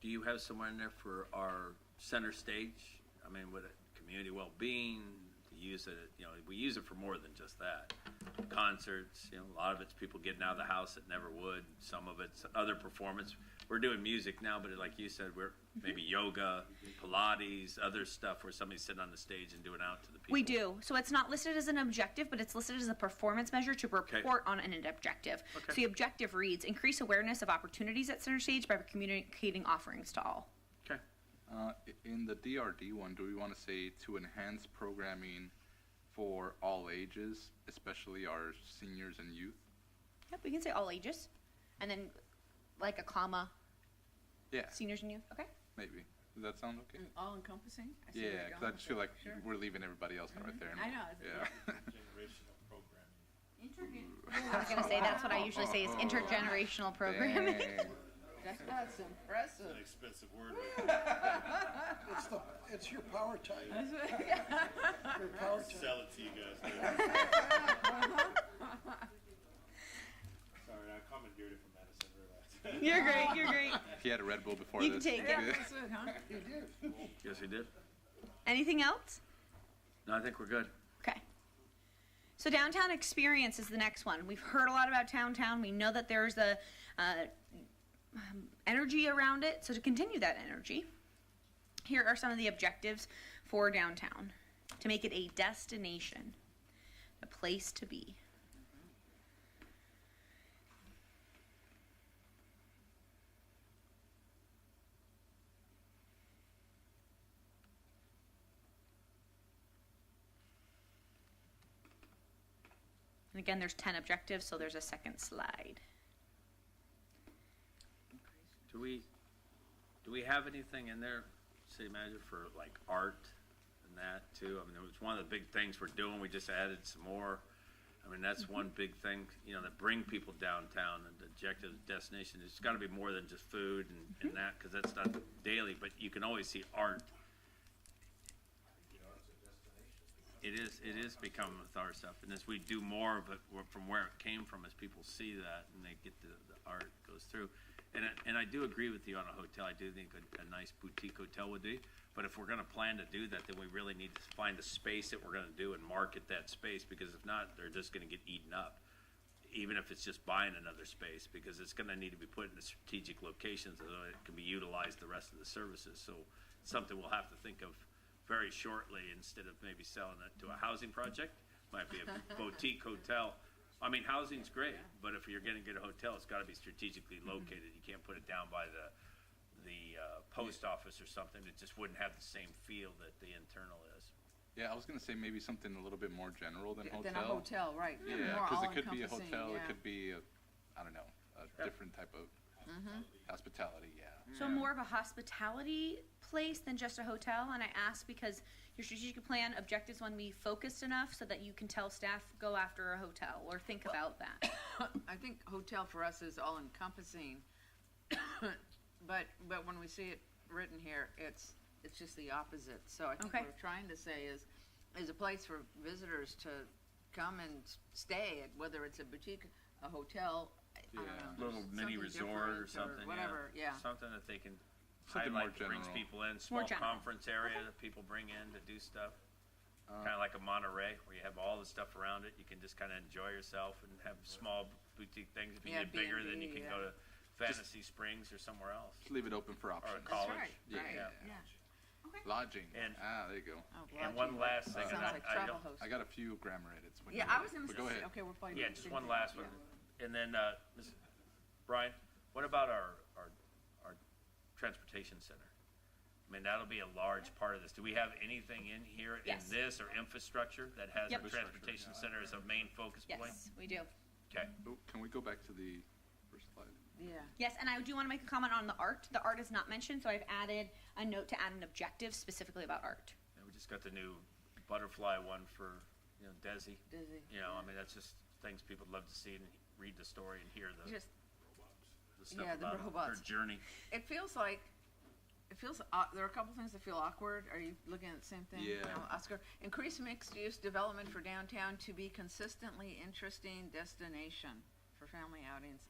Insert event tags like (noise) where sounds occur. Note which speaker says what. Speaker 1: do you have somewhere in there for our center stage? I mean, with community well-being, to use it, you know, we use it for more than just that. Concerts, you know, a lot of it's people getting out of the house that never would, some of it's other performance. We're doing music now, but like you said, we're maybe yoga, Pilates, other stuff where somebody's sitting on the stage and doing out to the people.
Speaker 2: We do. So it's not listed as an objective, but it's listed as a performance measure to report on an objective.
Speaker 1: Okay.
Speaker 2: So the objective reads increase awareness of opportunities at center stage by communicating offerings to all.
Speaker 1: Okay,
Speaker 3: Uh, i- in the DRD one, do we want to say to enhance programming for all ages, especially our seniors and youth?
Speaker 2: Yep, we can say all ages. And then like a comma,
Speaker 3: Yeah,
Speaker 2: seniors and youth. Okay.
Speaker 3: maybe. Does that sound okay?
Speaker 4: And all encompassing? I see where
Speaker 3: Yeah,
Speaker 4: you're
Speaker 3: because I
Speaker 4: going
Speaker 3: just
Speaker 4: with
Speaker 3: feel
Speaker 4: it.
Speaker 3: like
Speaker 4: Sure. Mm-hmm.
Speaker 3: we're leaving everybody else out right there.
Speaker 4: I know, it's- (laughs)
Speaker 3: Yeah.
Speaker 5: generational programming.
Speaker 2: I was going to say that's what I usually say is
Speaker 3: Oh.
Speaker 2: intergenerational programming.
Speaker 3: (laughs) Dang.
Speaker 4: That's, that's
Speaker 5: An
Speaker 4: impressive.
Speaker 5: expensive word. but
Speaker 6: It's the, it's your power type.
Speaker 4: That's what- (laughs) yeah.
Speaker 6: Your power type.
Speaker 5: Sell it to you guys. later. (laughs) Sorry, I commandeered it from Madison.
Speaker 2: (laughs)
Speaker 5: Relax.
Speaker 2: You're great. You're great.
Speaker 3: He had a Red Bull before
Speaker 2: You can
Speaker 3: this.
Speaker 2: take it.
Speaker 4: Yeah, that's it,
Speaker 3: (laughs)
Speaker 4: huh?
Speaker 6: You do.
Speaker 1: yes, we did.
Speaker 2: Anything else?
Speaker 1: No, I think we're good.
Speaker 2: Okay. So downtown experience is the next one. We've heard a lot about downtown. We know that there's a uh, um, energy around it. So to continue that energy, here are some of the objectives for downtown: to make it a destination, a place to be. And again, there's 10 objectives, so there's a second slide.
Speaker 1: Do we, do we have anything in there, city manager, for like art and that too? I mean, it was one of the big things we're doing, we just added some more. I mean, that's one big thing, you know, that bring people downtown and the objective destination, it's gotta be more than just food and, and that, cause that's not daily, but you can always see art. It is, it is becoming with our stuff, and as we do more of it, we're- from where it came from, as people see that and they get the, the art goes through. And, I- and I do agree with you on a hotel, I do think a, a nice boutique hotel would be, but if we're gonna plan to do that, then we really need to find the space that we're gonna do and market that space, because if not, they're just gonna get eaten up. Even if it's just buying another space, because it's gonna need to be put in a strategic location so that it can be utilized the rest of the services, so something we'll have to think of very shortly instead of maybe selling it to a housing project. Might be a boutique hotel. I mean, housing's great, but if you're gonna get a hotel, it's gotta be strategically located. You can't put it down by the, the, uh, post office or something. It just wouldn't have the same feel that the internal is.
Speaker 3: Yeah, I was gonna say maybe something a little bit more general than hotel.
Speaker 4: Then a hotel, right.
Speaker 3: Yeah,
Speaker 4: More
Speaker 3: because it could be a
Speaker 4: all-encompassing,
Speaker 3: hotel. It
Speaker 4: yeah.
Speaker 3: could be, a, I don't know, a different type of
Speaker 4: Mm-hmm.
Speaker 3: hospitality. Yeah.
Speaker 2: So more of a hospitality place than just a hotel. And I ask because your strategic plan objectives want to be focused enough so that you can tell staff go after a hotel or think about that.
Speaker 4: I think hotel for us is all encompassing. (coughs) But, but when we see it written here, it's, it's just the opposite. So I think
Speaker 2: Okay.
Speaker 4: what we're trying to say is, is a place for visitors to come and s- stay at, whether it's a boutique, a hotel, I I don't know.
Speaker 3: Yeah.
Speaker 4: there's
Speaker 1: Little mini
Speaker 4: something
Speaker 1: resort or
Speaker 4: different
Speaker 1: something, yeah.
Speaker 4: Whatever, yeah.
Speaker 1: Something that they can
Speaker 3: Something more
Speaker 1: highlight that brings
Speaker 3: general.
Speaker 1: people in, small
Speaker 2: general.
Speaker 1: conference area that people bring in to do stuff.
Speaker 3: Uh.
Speaker 1: Kinda like a Monterey where you have all the stuff around it. You can just kinda enjoy yourself and have small boutique things. If you
Speaker 4: Yeah,
Speaker 1: get bigger, then you
Speaker 4: B&B,
Speaker 1: can
Speaker 4: yeah.
Speaker 1: go to Fantasy Springs or somewhere else,
Speaker 3: Just leave it open for
Speaker 1: or a
Speaker 3: options.
Speaker 1: college.
Speaker 4: right,
Speaker 3: Yeah.
Speaker 4: right,
Speaker 1: Yeah.
Speaker 4: yeah.
Speaker 3: Lodging.
Speaker 1: And-
Speaker 3: ah, there you go.
Speaker 4: Oh,
Speaker 1: And
Speaker 4: lodging,
Speaker 1: one
Speaker 4: right.
Speaker 1: last thing, and
Speaker 4: Sounds
Speaker 1: I-
Speaker 4: like
Speaker 1: I
Speaker 4: travel
Speaker 1: don't-
Speaker 4: hosts.
Speaker 3: I got a few grammar edits. When
Speaker 4: Yeah,
Speaker 3: you're
Speaker 4: I
Speaker 3: ready,
Speaker 4: was gonna
Speaker 3: but go
Speaker 4: say,
Speaker 3: ahead.
Speaker 4: okay, we're playing.
Speaker 1: Yeah, just one last one. And then, uh, Ms. Brian, what about our, our, our transportation center? I mean, that'll be a large part of this. Do we have anything in here in
Speaker 2: Yes.
Speaker 1: this or infrastructure that has
Speaker 2: Yep.
Speaker 1: the transportation center as a main focus point?
Speaker 2: Yes, we do.
Speaker 1: Okay,
Speaker 3: Oh, can we go back to the first slide?
Speaker 4: Yeah,
Speaker 2: Yes, and I do want to make a comment on the art. The art is not mentioned, so I've added a note to add an objective specifically about art.
Speaker 1: and we just got the new butterfly one for, you know, Desi.
Speaker 4: Desi.
Speaker 1: You know, I mean, that's just things people love to see and read the story and hear the,
Speaker 4: just,
Speaker 1: the stuff
Speaker 4: yeah, the
Speaker 1: about her
Speaker 4: robots.
Speaker 1: journey.
Speaker 4: it feels like, it feels, uh, there are a couple things that feel awkward. Are you looking at the same thing?
Speaker 3: Yeah.
Speaker 4: No, Oscar, increase mixed-use development for downtown to be consistently interesting destination for family outings